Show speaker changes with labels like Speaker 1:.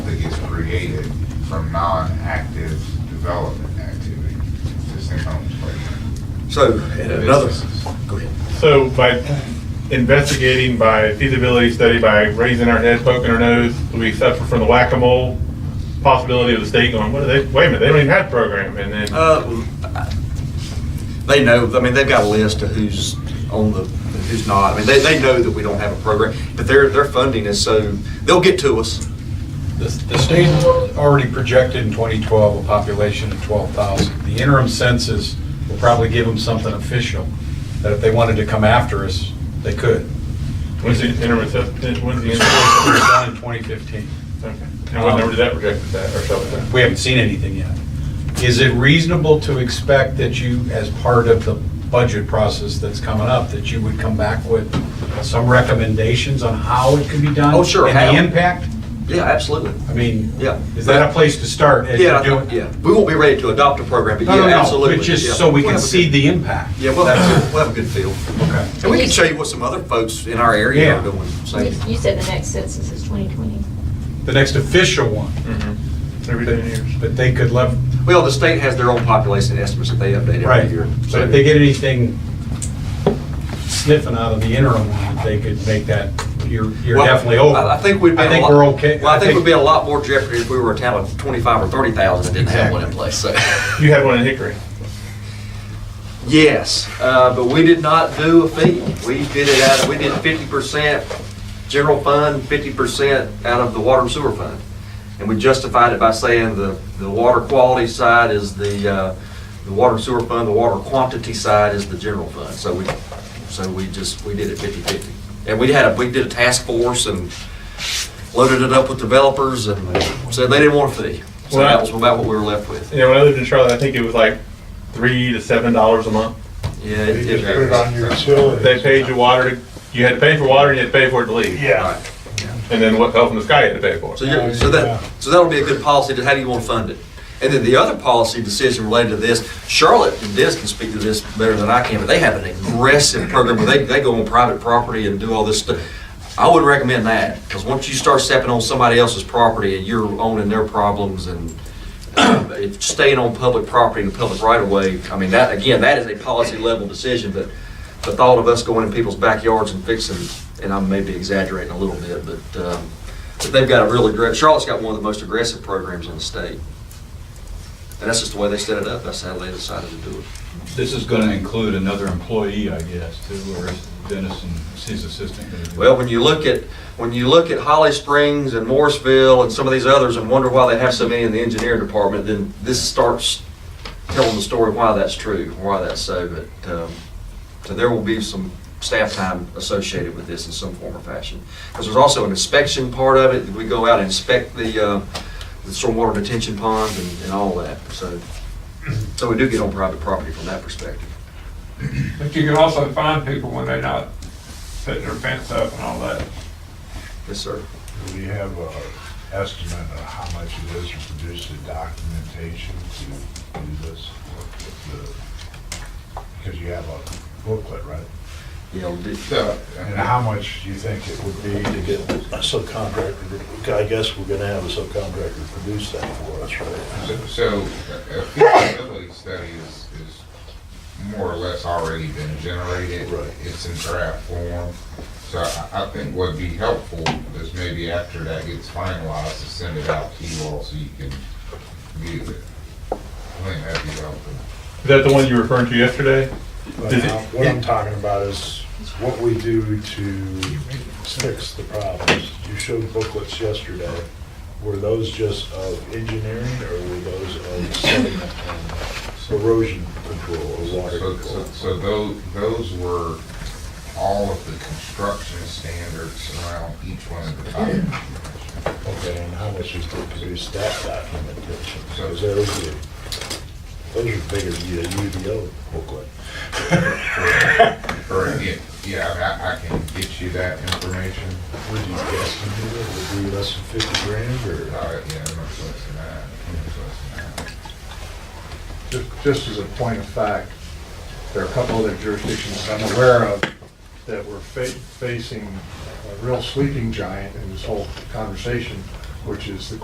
Speaker 1: from non-active development activity, existing homes, like.
Speaker 2: So, and another, go ahead.
Speaker 3: So by investigating, by feasibility study, by raising our head, poking our nose, do we suffer from the whack-a-mole possibility of the state going, what are they, wait a minute, they don't even have a program, and then.
Speaker 2: Uh, well, I- They know, I mean, they've got a list of who's on the, who's not. I mean, they, they know that we don't have a program, but their, their funding is so, they'll get to us.
Speaker 4: The the state already projected in 2012 a population of 12,000. The interim census will probably give them something official, that if they wanted to come after us, they could.
Speaker 3: When's the interim, assessment- when's the
Speaker 4: It
Speaker 3: interim?
Speaker 4: was done in 2015.
Speaker 3: Okay. And what number did that project with that, or something?
Speaker 4: We haven't seen anything yet. Is it reasonable to expect that you, as part of the budget process that's coming up, that you would come back with some recommendations on how it could be done?
Speaker 2: Oh, sure, how.
Speaker 4: And the impact?
Speaker 2: Yeah, absolutely.
Speaker 4: I mean,
Speaker 2: Yeah.
Speaker 4: is that a place to start as
Speaker 2: Yeah,
Speaker 4: you're
Speaker 2: I
Speaker 4: doing?
Speaker 2: think- yeah. We won't be ready to adopt a program, but
Speaker 4: No,
Speaker 2: yeah,
Speaker 4: no, no,
Speaker 2: absolutely.
Speaker 4: but
Speaker 2: yeah.
Speaker 4: just so we
Speaker 2: We'll
Speaker 4: can
Speaker 2: have a
Speaker 4: see
Speaker 2: good-
Speaker 4: the impact.
Speaker 2: Yeah, we'll have, a good- we'll have a good feel.
Speaker 4: Okay.
Speaker 2: And we can show you what some other folks in our area are
Speaker 4: Yeah.
Speaker 2: doing. so-
Speaker 5: You you said the next census is 2020.
Speaker 4: The next official one,
Speaker 3: Mhm. Every ten years.
Speaker 4: but they could lev,
Speaker 2: Well, the state has their own population estimates that they update
Speaker 4: right,
Speaker 2: every year.
Speaker 4: but if they get anything sniffing out of the interim one, they could make that, you're, you're
Speaker 2: Well,
Speaker 4: definitely over.
Speaker 2: I I think we'd be.
Speaker 4: I
Speaker 2: in a
Speaker 4: think
Speaker 2: lot-
Speaker 4: we're okay.
Speaker 2: Well, I think we'd be in a lot more jeopardy if we were a town of twenty-five or thirty thousand and didn't have one in place, so.
Speaker 3: You had one in Hickory.
Speaker 2: Yes, uh, but we did not do a fee. We did it out, of- we did fifty percent general fund, fifty percent out of the water and sewer fund. And we justified it by saying the, the water quality side is the, uh, the water and sewer fund, the water quantity side is the general fund. So we, so we just, we did it fifty-fifty. And we had a, we did a task force and loaded it up with developers and said they didn't want a fee. So that was about what we were left with.
Speaker 3: You know, when I lived in Charlotte, I think it was like three to seven dollars a month.
Speaker 2: Yeah. it-
Speaker 6: You just put it on your utilities.
Speaker 3: They paid you water, to- you had to pay for water and you had to pay for it to leave.
Speaker 6: Yeah.
Speaker 2: Right.
Speaker 3: And then what fell from the sky you had to pay for.
Speaker 2: So you're, so that, so that'll be a good policy, to how do you want to fund it? And then the other policy decision related to this, Charlotte and Des can speak to this better than I can, but they have an aggressive program where they, they go on private property and do all this stuff. I wouldn't recommend that, because once you start stepping on somebody else's property and you're owning their problems and uh, if staying on public property and public right of way, I mean, that, again, that is a policy level decision, but the thought of us going in people's backyards and fixing, and I may be exaggerating a little bit, but, um, but they've got a really great, Charlotte's got one of the most aggressive programs in the state. And that's just the way they set it up, that's how they decided to do it.
Speaker 7: This is going to include another employee, I guess, too, or is Dennis and his assistant? gonna do it?
Speaker 2: Well, when you look at, when you look at Holly Springs and Morrisville and some of these others and wonder why they have so many in the engineering department, then this starts telling the story why that's true, why that's so, but, um, so there will be some staff time associated with this in some form or fashion. Because there's also an inspection part of it, we go out and inspect the, uh, the stormwater detention ponds and, and all that, so, so we do get on private property from that perspective.
Speaker 8: But you can also find people when they're not putting their fence up and all that.
Speaker 2: Yes, sir.
Speaker 6: Do we have a estimate of how much it is to produce the documentation to do this work with the, because you have a booklet, right?
Speaker 2: Yeah, we did-
Speaker 1: So,
Speaker 6: And how much do you think it would be to
Speaker 9: get
Speaker 6: get?
Speaker 9: a subcontractor, to- I guess we're gonna have a subcontractor produce that for us, right?
Speaker 1: so- so a feasibility study is, is more or less already been generated.
Speaker 9: Right.
Speaker 1: It's in draft form. So I, I think what'd be helpful is maybe after that gets finalized, to send it out to you all so you can view it. I think that'd be helpful.
Speaker 3: Is that the one you were referring to yesterday?
Speaker 9: But
Speaker 3: Does it-
Speaker 9: now, What I'm talking about is what we do to fix the problems. You showed booklets yesterday. Were those just of engineering or were those of sediment and erosion control or water
Speaker 1: So, so,
Speaker 9: control?
Speaker 1: so those, those were all of the construction standards around each one of the documents.
Speaker 9: Okay, and how much is to produce that documentation?
Speaker 1: So-
Speaker 9: Because those are, those are bigger than a UDO booklet.
Speaker 1: Correct, yeah, yeah, I mean, I, I can get you that information.
Speaker 9: Would you guesstimate it would be less than fifty grand
Speaker 1: Uh,
Speaker 9: or?
Speaker 1: yeah, I'm not close to that, I'm not close to that.
Speaker 6: Ju- Just as a point of fact, there are a couple other jurisdictions I'm aware of that were fa- facing a real sleeping giant in this whole conversation, which is the